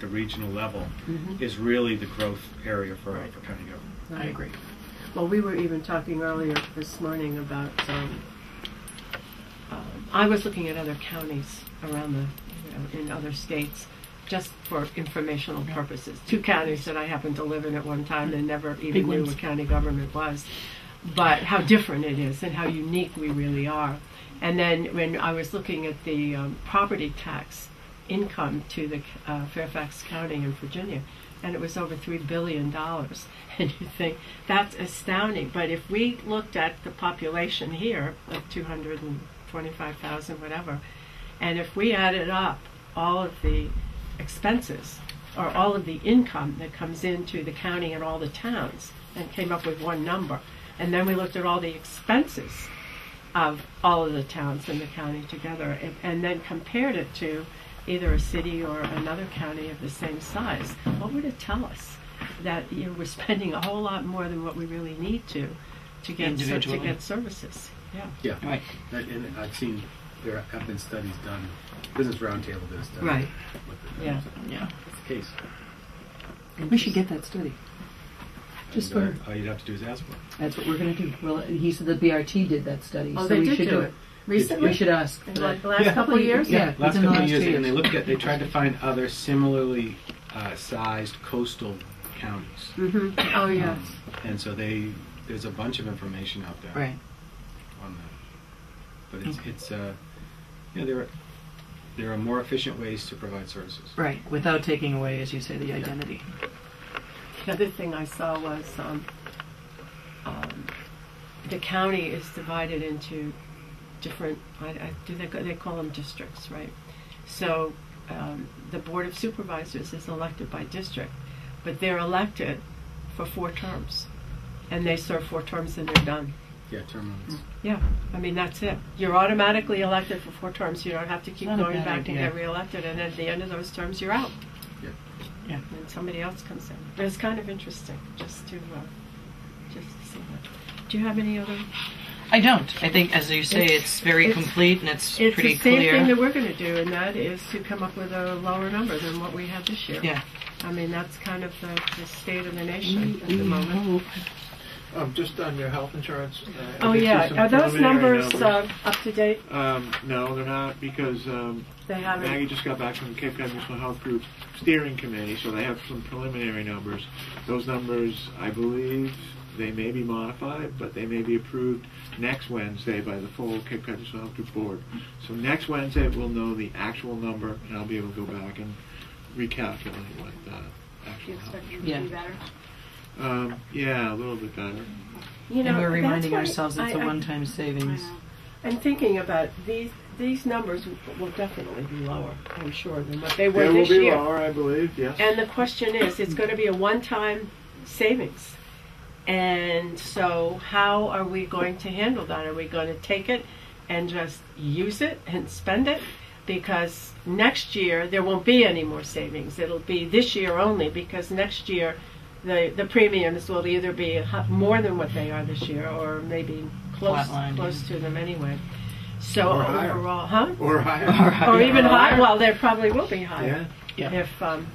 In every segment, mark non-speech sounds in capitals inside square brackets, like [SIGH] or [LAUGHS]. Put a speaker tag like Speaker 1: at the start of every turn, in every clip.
Speaker 1: the regional level is really the growth area for, for county government.
Speaker 2: I agree. Well, we were even talking earlier this morning about, um, um, I was looking at other counties around the, you know, in other states, just for informational purposes. Two counties that I happened to live in at one time and never even knew
Speaker 3: ones.
Speaker 2: what county government was. But how different it is and how unique we really are. And then when I was looking at the um, property tax income to the uh, Fairfax County in Virginia, and it was over three billion dollars. [LAUGHS] And you think that's astounding. But if we looked at the population here of two hundred and twenty-five thousand, whatever, and if we added up all of the expenses or all of the income that comes into the county and all the towns, and came up with one number, and then we looked at all the expenses of all of the towns in the county together and, and then compared it to either a city or another county of the same size, what would it tell us? That you know, we're spending a whole lot more than what we really need to to get ser- to
Speaker 3: Individually.
Speaker 2: get services. Yeah.
Speaker 4: Yeah,
Speaker 3: Right.
Speaker 4: and, and I've seen there have been studies done. Business Roundtable did a study.
Speaker 2: Right.
Speaker 4: with it.
Speaker 2: Yeah.
Speaker 3: Yeah.
Speaker 4: It's the case.
Speaker 5: We should get that study. Just
Speaker 4: And,
Speaker 5: for-
Speaker 4: uh, all you'd have to do is ask for it.
Speaker 5: That's what we're going to do. Well, he said the BRT did that study,
Speaker 2: Oh,
Speaker 5: so
Speaker 2: they
Speaker 5: we
Speaker 2: did
Speaker 5: should
Speaker 2: do
Speaker 5: do
Speaker 2: it.
Speaker 5: it. We should ask.
Speaker 2: In the last
Speaker 4: Yeah.
Speaker 2: couple of years?
Speaker 5: Yeah.
Speaker 4: Yeah, last
Speaker 5: within the
Speaker 4: couple of
Speaker 5: last
Speaker 4: years,
Speaker 5: two
Speaker 4: and they
Speaker 5: years.
Speaker 4: looked at, they tried to find other similarly uh, sized coastal counties.
Speaker 2: hmm Oh, yes.
Speaker 4: Um, and so they, there's a bunch of information out there.
Speaker 3: Right.
Speaker 4: on that. But it's, it's uh, you know, there are, there are more efficient ways to provide services.
Speaker 3: Right. Without taking away, as you say, the identity.
Speaker 2: The other thing I saw was um, um, the county is divided into different. I, I, do they they call them districts, right? So um, the board of supervisors is elected by district, but they're elected for four terms, and they serve four terms and they're done.
Speaker 4: Yeah, term limits.
Speaker 2: Yeah, I mean that's it. You're automatically elected for four terms. You don't have to keep
Speaker 3: Not a
Speaker 2: going
Speaker 3: bad
Speaker 2: back and
Speaker 3: idea.
Speaker 2: get reelected, and at the end of those terms, you're out
Speaker 3: Yeah.
Speaker 2: and somebody else comes in. But it's kind of interesting just to uh, just to see that. Do you have any other?
Speaker 3: I don't. I think, as you say,
Speaker 2: It's-
Speaker 3: it's, very
Speaker 2: it's-
Speaker 3: complete and it's,
Speaker 2: It's
Speaker 3: pretty
Speaker 2: the same
Speaker 3: clear.
Speaker 2: thing that we're going to do, and that is to come up with a lower number than what we had this year.
Speaker 3: yeah.
Speaker 2: I mean that's kind of the, the state of the nation at the moment.
Speaker 6: Um, just on your health insurance. Uh, I
Speaker 2: Oh
Speaker 6: did see
Speaker 2: yeah,
Speaker 6: some
Speaker 2: are those
Speaker 6: preliminary
Speaker 2: numbers uh, up to date?
Speaker 6: um, no, they're not because um,
Speaker 2: They
Speaker 6: Maggie
Speaker 2: haven't.
Speaker 6: just got back from Cape Cod Municipal Health Group steering committee, so they have some preliminary numbers. Those numbers, I believe, they may be modified, but they may be approved next Wednesday by the full Cape Cod Municipal Health Group board. So next Wednesday, we'll know the actual number, and I'll be able to go back and recalculate what the actual. health insurance-
Speaker 5: Yeah.
Speaker 6: Um, yeah, a little bit better.
Speaker 2: You know,
Speaker 3: and we're
Speaker 2: that's
Speaker 3: reminding
Speaker 2: why
Speaker 3: ourselves it's
Speaker 2: I-
Speaker 3: a
Speaker 2: I-
Speaker 3: one-time savings.
Speaker 2: I'm thinking about these. These numbers will definitely be lower, I'm sure, than what they were
Speaker 6: They will
Speaker 2: this
Speaker 6: be
Speaker 2: year.
Speaker 6: lower, I believe, yes.
Speaker 2: And the question is, it's going to be a one-time savings. And so how are we going to handle that? Are we going to take it and just use it and spend it? Because next year, there won't be any more savings. It'll be this year only because next year, the, the premiums will either be hu- more than what they are this year or maybe close,
Speaker 3: Flatline.
Speaker 2: close to them anyway. So
Speaker 6: Or higher.
Speaker 2: overall, huh? [LAUGHS]
Speaker 6: Or higher.
Speaker 2: Or even
Speaker 6: Or
Speaker 2: higher.
Speaker 6: higher.
Speaker 2: Well, there probably will be higher
Speaker 6: Yeah.
Speaker 3: Yeah.
Speaker 2: if um,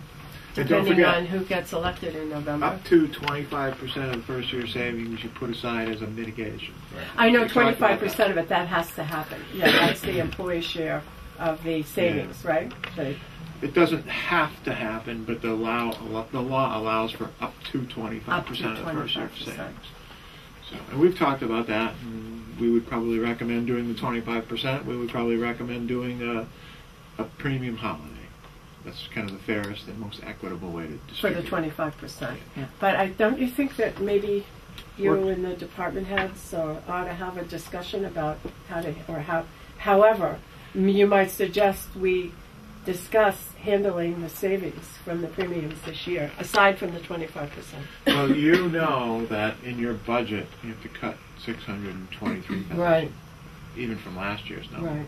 Speaker 6: And don't
Speaker 2: depending on
Speaker 6: forget,
Speaker 2: who gets elected in November.
Speaker 6: up to 25% of the first year savings you put aside as a mitigation.
Speaker 2: I know
Speaker 6: We talked
Speaker 2: twenty-five
Speaker 6: about
Speaker 2: percent of it, that has to happen. Yeah, that's the employee share of the savings, right? The-
Speaker 6: It doesn't have to happen, but the law, the law allows for up to 25%
Speaker 2: Up to
Speaker 6: of the first year
Speaker 2: 25%.
Speaker 6: savings. So, and we've talked about that. and We would probably recommend doing the 25%. We would probably recommend doing a, a premium holiday. That's kind of the fairest and most equitable way to
Speaker 2: For
Speaker 6: distribute.
Speaker 2: the twenty-five percent.
Speaker 3: Yeah.
Speaker 2: But I, don't you think that maybe you
Speaker 6: Or-
Speaker 2: and the department heads uh, ought to have a discussion about how to, or how, however, m- you might suggest we discuss handling the savings from the premiums this year, aside from the twenty-five percent?
Speaker 6: Well, you know that in your budget, you have to cut 623,000. Even from last year's number.
Speaker 2: Right.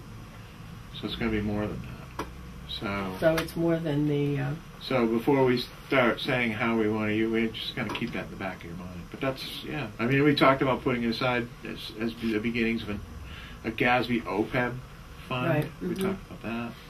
Speaker 6: So it's going to be more than that. So,
Speaker 2: So it's more than the, uh,
Speaker 6: so before we start saying how we want to use, we're just going to keep that in the back of your mind. But that's yeah. I mean, we talked about putting it aside as as be- the beginnings of an, a GASB OPEB E fund.
Speaker 2: Right,
Speaker 6: We
Speaker 2: mhm.
Speaker 6: talked about that.